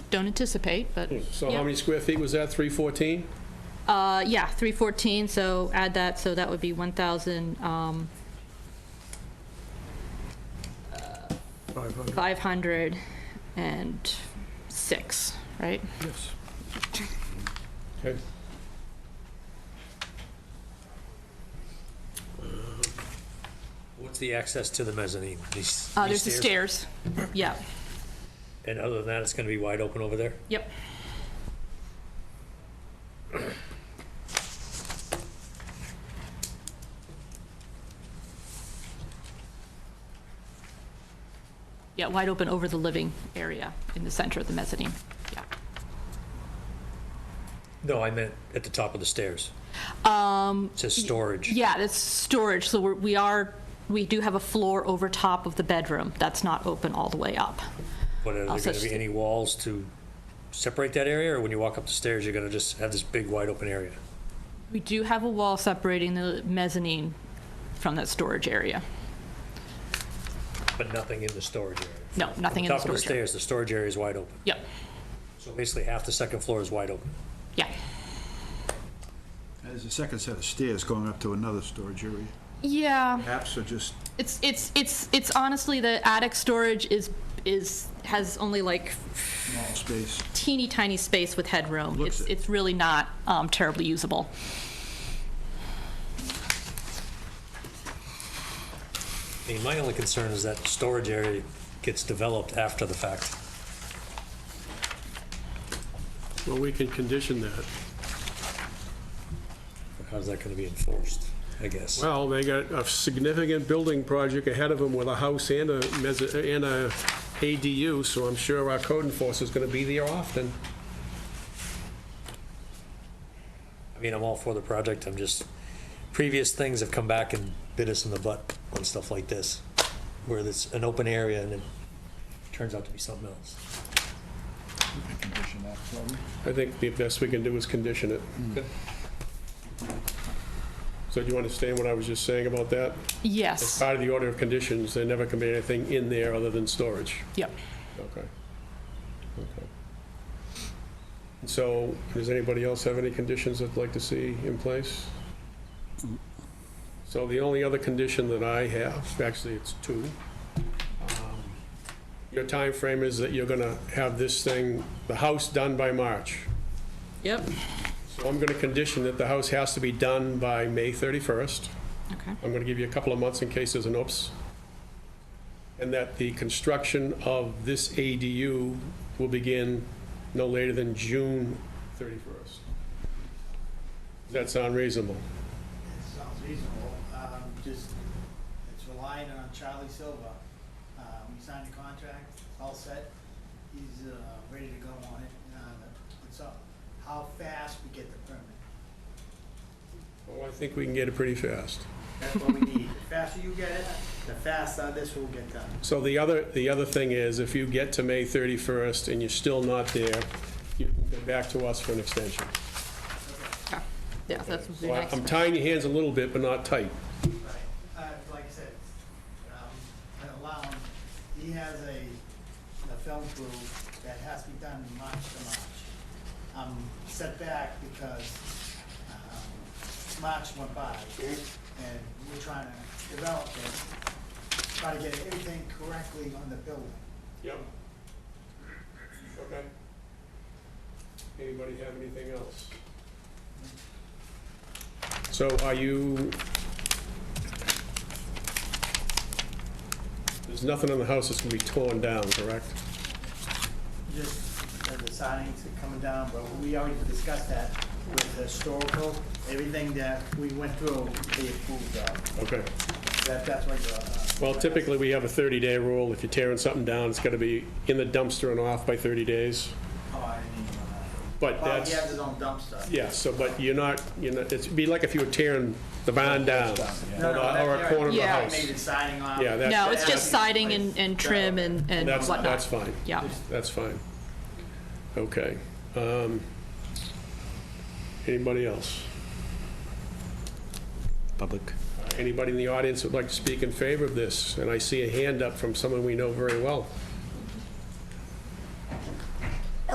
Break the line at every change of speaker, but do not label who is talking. don't anticipate, but,
So
Yeah.
how many square feet was that, 314?
uh, yeah, 314, so add that, so that would be uh, 1,500
Five hundred,
and six, right?
yes.
Okay.
What's the access to the mezzanine? These
Uh, There's
these
the stairs, yeah,
And other than that, it's going to be wide open over there?
yep. Yeah, wide open over the living area in the center of the mezzanine, yeah.
No, I meant at the top of the stairs. Um. It says storage.
Yeah, that's storage, so we're- we are, we do have a floor over top of the bedroom. That's not open all the way up.
But are there
Also
going to be
sta-
any walls to separate that area? Or when you walk up the stairs, you're going to just have this big wide open area?
We do have a wall separating the mezzanine from that storage area.
But nothing in the storage area?
No, nothing in the
Top of the
storage area.
stairs, the storage area is wide open.
Yep,
So basically, half the second floor is wide open.
yeah.
There's a second set of stairs going up to another storage area.
Yeah,
Apps are just,
it's, it's, it's, it's honestly, the attic storage is, is, has only like
small space.
teeny tiny space with headroom.
Looks
It's,
it.
it's really not um, terribly usable.
I mean, my only concern is that storage area gets developed after the fact.
Well, we can condition that.
How's that going to be enforced, I guess?
Well, they got a significant building project ahead of them with a house and a, mezz- and a ADU, so I'm sure our code enforcer's gonna be there often.
I mean, I'm all for the project, I'm just, previous things have come back and bit us in the butt on stuff like this, where it's an open area and it turns out to be something else.
Condition that, probably.
I think the best we can do is condition it. So do you understand what I was just saying about that? As
Yes,
part of the order of conditions, there never can be anything in there other than storage.
yep.
Okay. Okay. So, does anybody else have any conditions they'd like to see in place? So the only other condition that I have, actually it's two. Um, Your time frame is that you're gonna have this thing, the house done by March.
Yep.
So I'm gonna condition that the house has to be done by May 31st.
Okay,
I'm going to give you a couple of months in case there's an oops. And that the construction of this ADU will begin no later than June 31st. Does that sound reasonable?
It sounds reasonable, um, just, it's relying on Charlie Silva. Um, he signed the contract, it's all set, he's, uh, ready to go on it, uh, it's up, how fast we get the permit.
Well, Oh, I think we can get it pretty fast.
That's what we need, the faster you get it, the faster this will get done.
So the other, the other thing is, if you get to May 31st and you're still not there, you can go back to us for an extension.
yeah, yeah, that's would be
So I-
nice.
I'm tying your hands a little bit, but not tight.
Right, uh, like I said, um, I allow him, he has a, a film crew that has to be done March to March. I'm set back because, um, March went by, and we're trying to develop this, try to get everything correctly on the building.
Yep. Okay. Anybody have anything else? So are you? There's nothing in the house that's gonna be torn down, correct?
Just uh, the signings are coming down, but we already discussed that with the historical, everything that we went through, they approved of.
Okay.
That, that's what the. uh,
Well, typically, we have a 30-day rule. If you're tearing something down, it's gotta be in the dumpster and off by 30 days.
Oh, I didn't even know that.
But
Well, he has
that's,
his own dumpster.
yeah, so, but you're not, you're not, it'd be like if you were tearing the barn down or
No, no,
a-
that-
or a corner of the
Yeah.
house.
Made it signing off.
Yeah, that-
No, it's just siding and, and trim and, and
That's,
whatnot.
that's fine.
Yeah.
That's fine. Okay. Um, Anybody else?
public.
Uh, Anybody in the audience would like to speak in favor of this? And I see a hand up from someone we know very well.